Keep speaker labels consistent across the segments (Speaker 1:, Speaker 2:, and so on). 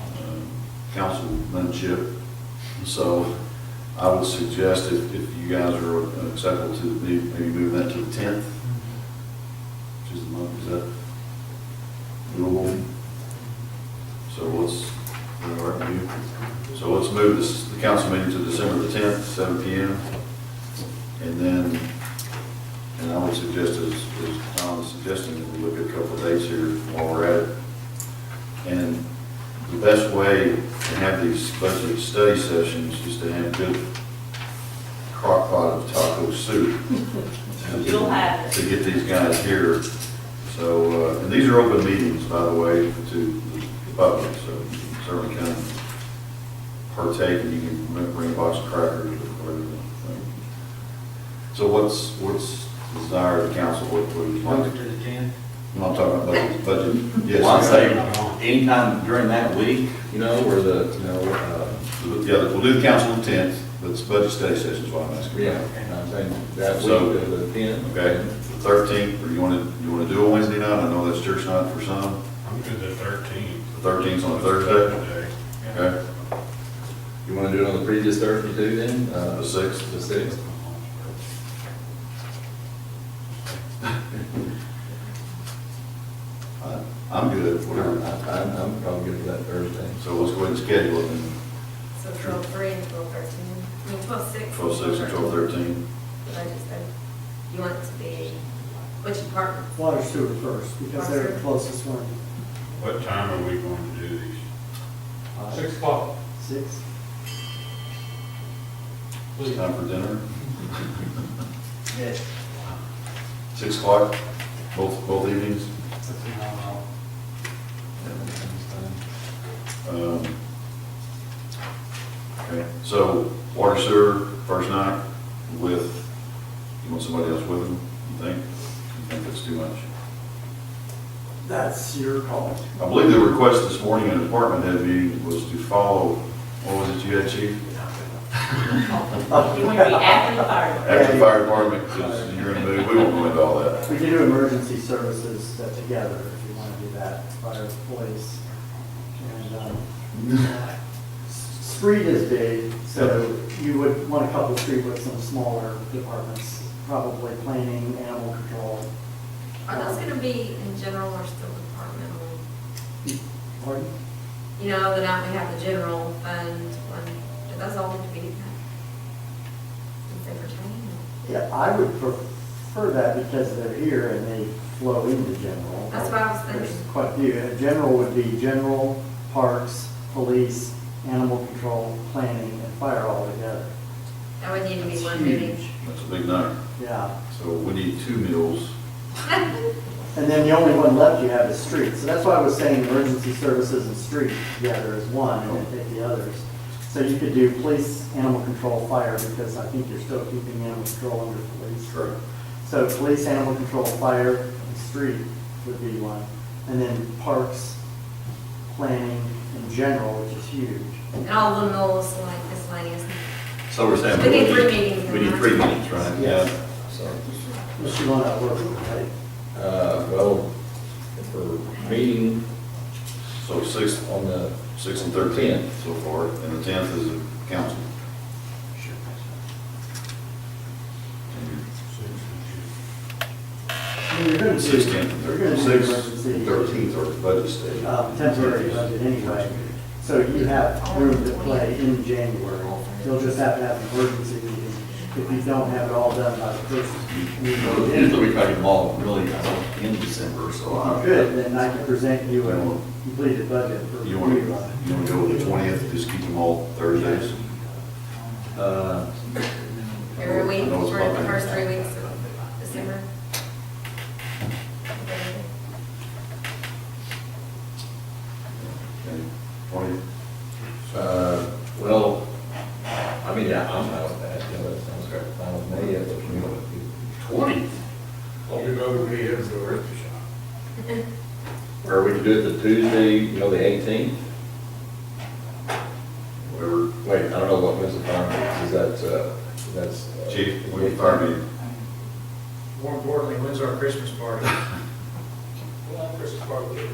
Speaker 1: uh, councilmanship. So I would suggest if, if you guys are acceptable to, the meeting, maybe move that to the tenth, which is the month, is that doable? So let's, all right, you? So let's move this, the council meeting to December the tenth, seven P M. And then, and I would suggest, as, as Tom was suggesting, that we look at a couple of dates here while we're at it. And the best way to have these budget study sessions is to have good crock pot of taco soup.
Speaker 2: You'll have it.
Speaker 1: To get these guys here. So, uh, and these are open meetings, by the way, to the public, so you can certainly come partake, and you can bring a box of crackers or whatever. So what's, what's the desire of the council, what what would you like?
Speaker 3: to the ten?
Speaker 1: I'm not talking about budget, budget, yes.
Speaker 4: Well, I'd say anytime during that week, you know, where the, you know, uh,
Speaker 1: Yeah, we'll do the council on tenth, but it's budget study session is what I'm asking.
Speaker 4: yeah, and I'm saying that week
Speaker 1: So-
Speaker 4: of the ten.
Speaker 1: Okay, the thirteenth, or you wanna, you wanna do a Wednesday night, I know that's church night for some,
Speaker 5: I'm good at thirteen.
Speaker 1: the thirteenth's on a Thursday, okay,
Speaker 4: You wanna do it on the previous Thursday too then, uh,
Speaker 1: the sixth,
Speaker 4: the sixth?
Speaker 1: I- I'm good,
Speaker 4: Whatever,
Speaker 1: whatever.
Speaker 4: I, I'm, I'm probably good for that Thursday.
Speaker 1: So let's go ahead and schedule it, and
Speaker 6: So twelve three and twelve thirteen, I mean twelve six.
Speaker 1: twelve six and twelve thirteen,
Speaker 6: I just said, you want it to be, which department?
Speaker 3: Water sewer first, because they're the closest one.
Speaker 5: What time are we going to do these?
Speaker 3: Six o'clock. Six?
Speaker 1: it's time for dinner,
Speaker 3: Yes.
Speaker 1: six o'clock, both, both evenings.
Speaker 3: That's a phenomenal.
Speaker 1: Um, Okay, so water sewer, first night with, you want somebody else with them, you think? You think that's too much?
Speaker 3: That's your call.
Speaker 1: I believe the request this morning in the department head meeting was to follow, what was it you had, chief?
Speaker 2: You want to be after the fire.
Speaker 1: After the fire department, because you're in the mood, we won't go into all that.
Speaker 3: We can do emergency services that together, if you want to do that, fire, police. And, um, s- street is big, so you would want a couple of street with some smaller departments, probably planning, animal control.
Speaker 6: Are those gonna be in general or still departmental?
Speaker 3: Pardon?
Speaker 6: You know, the night we have the general fund one, do those all need to be? Is they pertaining?
Speaker 3: Yeah, I would prefer that because they're here and they flow into general.
Speaker 6: That's what I was thinking.
Speaker 3: There's Quite a few. Uh, General would be general, parks, police, animal control, planning, and fire all together.
Speaker 6: That would need to be
Speaker 3: It's
Speaker 6: one meeting.
Speaker 3: huge.
Speaker 1: That's a big night.
Speaker 3: Yeah.
Speaker 1: So we need two meals.
Speaker 3: And then the only one left you have is street. So that's why I was saying emergency services and street together is one and then take the others. So you could do police, animal control, fire, because I think you're still keeping animal control under police.
Speaker 1: Correct.
Speaker 3: So police, animal control, fire, and street would be one. And then parks, planning in general, which is huge.
Speaker 6: And all the mills, like miscellaneous.
Speaker 1: So we're saying.
Speaker 6: We need three meetings.
Speaker 1: We need three meetings, right?
Speaker 3: Yes.
Speaker 4: So,
Speaker 3: Unless you want to work, right?
Speaker 4: uh, well, if we're meeting
Speaker 1: So six,
Speaker 4: on the,
Speaker 1: six and thirteen so far, and the tenth is a council.
Speaker 3: I mean, you're going to do.
Speaker 1: Six, tenth, and
Speaker 3: you're gonna
Speaker 1: thirteenth.
Speaker 3: do
Speaker 1: Six
Speaker 3: emergency,
Speaker 1: and thirteenth are budget stage.
Speaker 3: uh, Temporary budget anyway. So you have room to play in January. You'll just have to have an emergency meeting if you don't have it all done by the first meeting.
Speaker 4: usually we try to get them all really uh, in December, so I.
Speaker 3: Good, then I can present you a completed budget for
Speaker 1: You want to,
Speaker 3: rerun.
Speaker 1: you want to go with the twentieth, just keep them all Thursdays?
Speaker 4: Uh,
Speaker 6: Every
Speaker 1: I
Speaker 6: week,
Speaker 1: know it's
Speaker 6: for the
Speaker 1: probably-
Speaker 6: first three weeks of December. Okay.
Speaker 1: Twentieth,
Speaker 4: uh, well, I mean, yeah, I'm out with that, you know, that sounds great, fine with me, if you know.
Speaker 5: Twenty? Well, we know we have the rest of the shop.
Speaker 4: Or we could do it the Tuesday, you know, the eighteenth,
Speaker 1: whatever,
Speaker 4: wait, I don't know what Mr. Farmer, is that, uh, that's. uh,
Speaker 1: chief, we fire meeting.
Speaker 7: More importantly, when's our Christmas party? Christmas party.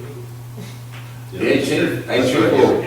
Speaker 4: The eighteenth,
Speaker 1: That's right.
Speaker 4: eighteenth.